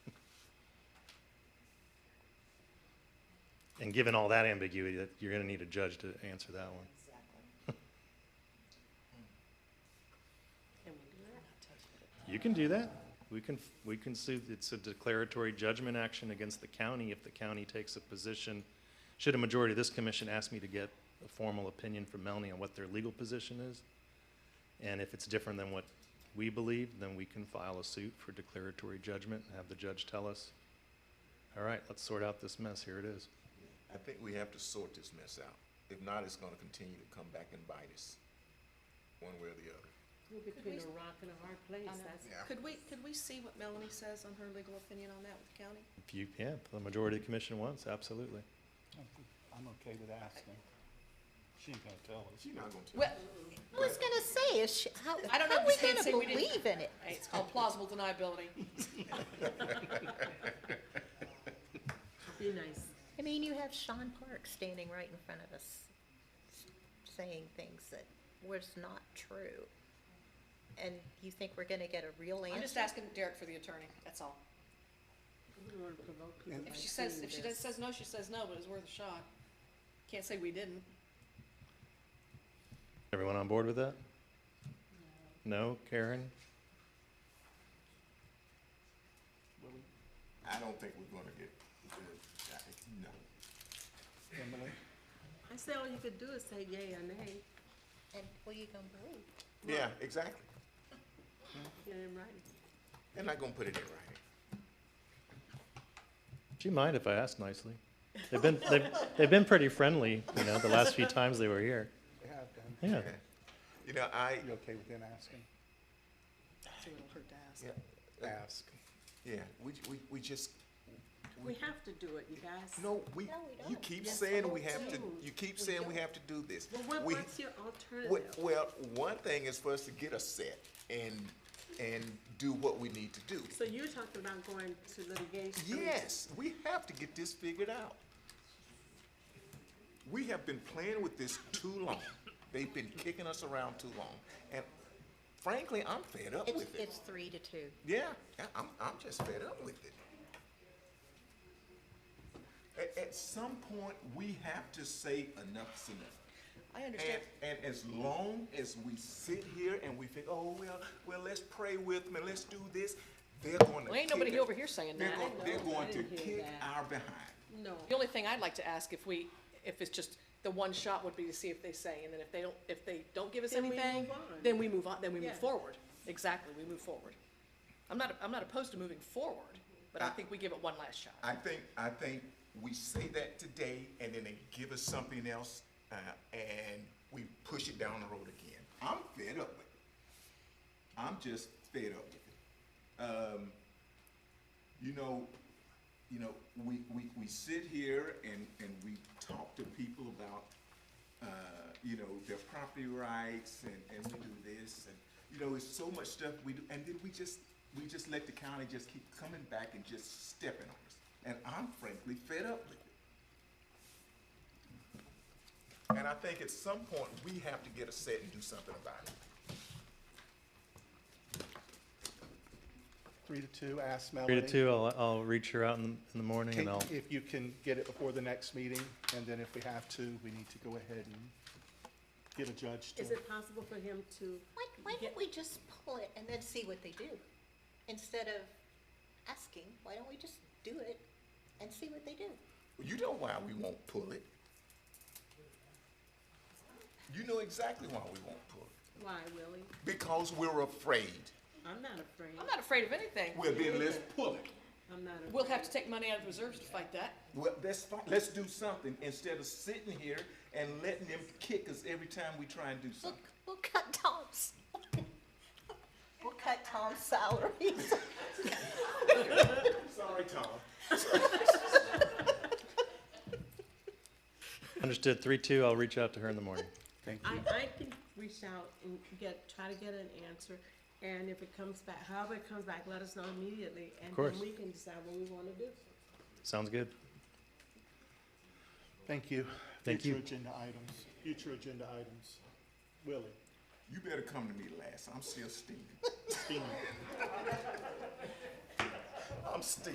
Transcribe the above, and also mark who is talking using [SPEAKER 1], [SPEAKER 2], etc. [SPEAKER 1] And given all that ambiguity, that you're going to need a judge to answer that one.
[SPEAKER 2] Exactly.
[SPEAKER 3] Can we do that?
[SPEAKER 1] You can do that. We can, we can sue, it's a declaratory judgment action against the county if the county takes a position. Should a majority of this commission ask me to get a formal opinion from Melanie on what their legal position is? And if it's different than what we believe, then we can file a suit for declaratory judgment and have the judge tell us, all right, let's sort out this mess, here it is.
[SPEAKER 4] I think we have to sort this mess out. If not, it's gonna continue to come back and bite us, one way or the other.
[SPEAKER 3] We're between a rock and a hard place,
[SPEAKER 2] I know.
[SPEAKER 3] that's.
[SPEAKER 4] Yeah.
[SPEAKER 2] Could we, could we see what Melanie says on her legal opinion on that with the county?
[SPEAKER 1] If you, yeah, if the majority of the commission wants, absolutely.
[SPEAKER 5] I'm okay with asking. She ain't gonna tell us.
[SPEAKER 4] She not gonna tell.
[SPEAKER 6] Well,
[SPEAKER 4] us.
[SPEAKER 6] I was gonna say, is she, how,
[SPEAKER 2] I don't
[SPEAKER 6] how are we
[SPEAKER 2] understand,
[SPEAKER 6] gonna
[SPEAKER 2] so we didn't-
[SPEAKER 6] believe in it?
[SPEAKER 2] It's called plausible deniability.
[SPEAKER 3] Be nice.
[SPEAKER 6] I mean, you have Sean Park standing right in front of us, saying things that was not true. And you think we're gonna get a real
[SPEAKER 2] I'm just
[SPEAKER 6] answer?
[SPEAKER 2] asking Derek for the attorney, that's all.
[SPEAKER 3] We don't wanna provoke people
[SPEAKER 5] And-
[SPEAKER 3] by
[SPEAKER 2] If she says,
[SPEAKER 3] saying
[SPEAKER 2] if she
[SPEAKER 3] this.
[SPEAKER 2] does, says no, she says no, but it's worth a shot. Can't say we didn't.
[SPEAKER 1] Everyone on board with that? No, Karen?
[SPEAKER 4] I don't think we're gonna get, uh, I- no.
[SPEAKER 5] Emily,
[SPEAKER 3] I say all you could do is say yay or nay,
[SPEAKER 6] And what are you gonna believe?
[SPEAKER 4] Yeah, exactly.
[SPEAKER 3] get it in writing.
[SPEAKER 4] They're not gonna put it in writing.
[SPEAKER 1] Do you mind if I ask nicely? They've been, they've, they've been pretty friendly, you know, the last few times they were here.
[SPEAKER 5] they have done.
[SPEAKER 1] Yeah.
[SPEAKER 4] You know, I,
[SPEAKER 5] You okay with them asking?
[SPEAKER 2] So it'll hurt to ask.
[SPEAKER 4] yeah, uh,
[SPEAKER 5] Ask.
[SPEAKER 4] yeah, we, we, we just,
[SPEAKER 3] We have to do it, you guys.
[SPEAKER 4] no, we,
[SPEAKER 6] No, we
[SPEAKER 4] you
[SPEAKER 6] don't.
[SPEAKER 4] keep
[SPEAKER 6] Yes,
[SPEAKER 4] saying
[SPEAKER 6] we
[SPEAKER 4] we have to,
[SPEAKER 3] do.
[SPEAKER 4] you keep saying we have to do this.
[SPEAKER 3] Well, what,
[SPEAKER 4] We-
[SPEAKER 3] what's your
[SPEAKER 4] Well,
[SPEAKER 3] alternative?
[SPEAKER 4] well, one thing is for us to get a set and, and do what we need to do.
[SPEAKER 3] So you're talking about going to litigation? I mean,
[SPEAKER 4] Yes, we have to get this figured out. We have been playing with this too long. They've been kicking us around too long. And frankly, I'm fed up
[SPEAKER 6] It's,
[SPEAKER 4] with it.
[SPEAKER 6] it's three to two.
[SPEAKER 4] Yeah, I- I'm, I'm just fed up with it. At, at some point, we have to say enough's enough.
[SPEAKER 2] I understand,
[SPEAKER 4] And, and as long as we sit here and we think, oh, well, well, let's pray with them and let's do this, they're gonna.
[SPEAKER 2] Well,
[SPEAKER 4] kick
[SPEAKER 2] ain't nobody
[SPEAKER 4] it.
[SPEAKER 2] over here saying
[SPEAKER 4] They're
[SPEAKER 2] that.
[SPEAKER 4] gon-
[SPEAKER 3] I
[SPEAKER 4] They're
[SPEAKER 3] know, I
[SPEAKER 4] going to
[SPEAKER 3] didn't hear
[SPEAKER 4] kick
[SPEAKER 3] that.
[SPEAKER 4] our behind.
[SPEAKER 3] No,
[SPEAKER 2] the only thing I'd like to ask if we, if it's just, the one shot would be to see if they say, and then if they don't, if they don't give us
[SPEAKER 3] Then we
[SPEAKER 2] anything,
[SPEAKER 3] move on.
[SPEAKER 2] then we move on, then we
[SPEAKER 3] Yeah.
[SPEAKER 2] move forward. Exactly, we move forward. I'm not, I'm not opposed to moving forward, but I
[SPEAKER 4] I-
[SPEAKER 2] think we give it one last shot.
[SPEAKER 4] I think, I think we say that today and then they give us something else, uh, and we push it down the road again. I'm fed up with it. I'm just fed up with it. Um, you know, you know, we, we, we sit here and, and we talk to people about, uh, you know, their property rights and, and we do this and, you know, it's so much stuff we do, and then we just, we just let the county just keep coming back and just stepping on us. And I'm frankly fed up with it. And I think at some point, we have to get a set and do something about it.
[SPEAKER 5] Three to two, ask
[SPEAKER 1] Three
[SPEAKER 5] Melanie.
[SPEAKER 1] to two, I'll, I'll reach her out in, the- in the morning
[SPEAKER 5] Can-
[SPEAKER 1] and I'll,
[SPEAKER 5] If you can get it before the next meeting, and then if we have to, we need to go ahead and get a judge to.
[SPEAKER 3] is it possible for him to,
[SPEAKER 6] Why, why don't we just pull it and then see what they do? Instead of asking, why don't we just do it and see what they do?
[SPEAKER 4] You know why we won't pull it. You know exactly why we won't pull it.
[SPEAKER 3] why, Willie?
[SPEAKER 4] Because we're afraid.
[SPEAKER 3] I'm not afraid.
[SPEAKER 2] I'm not afraid of anything.
[SPEAKER 4] Well, then let's pull it.
[SPEAKER 3] I'm not afraid.
[SPEAKER 2] We'll have to take money out of reserves to fight that.
[SPEAKER 4] Well, that's fine. Let's do something instead of sitting here and letting them kick us every time we try and do
[SPEAKER 6] We'll,
[SPEAKER 4] something.
[SPEAKER 6] we'll cut Tom's, we'll cut Tom's salary.
[SPEAKER 4] Sorry, Tom.
[SPEAKER 1] understood, three, two, I'll reach out to her in the morning.
[SPEAKER 5] Thank
[SPEAKER 3] I,
[SPEAKER 5] you.
[SPEAKER 3] I can reach out and get, try to get an answer, and if it comes back, however it comes back, let us know immediately, and
[SPEAKER 1] course.
[SPEAKER 3] then we can decide what we wanna do.
[SPEAKER 1] Sounds good.
[SPEAKER 5] Thank you.
[SPEAKER 1] Thank you.
[SPEAKER 5] Future agenda items, future agenda items. Willie,
[SPEAKER 4] You better come to me last. I'm still steaming.
[SPEAKER 5] Steen.
[SPEAKER 4] I'm steaming.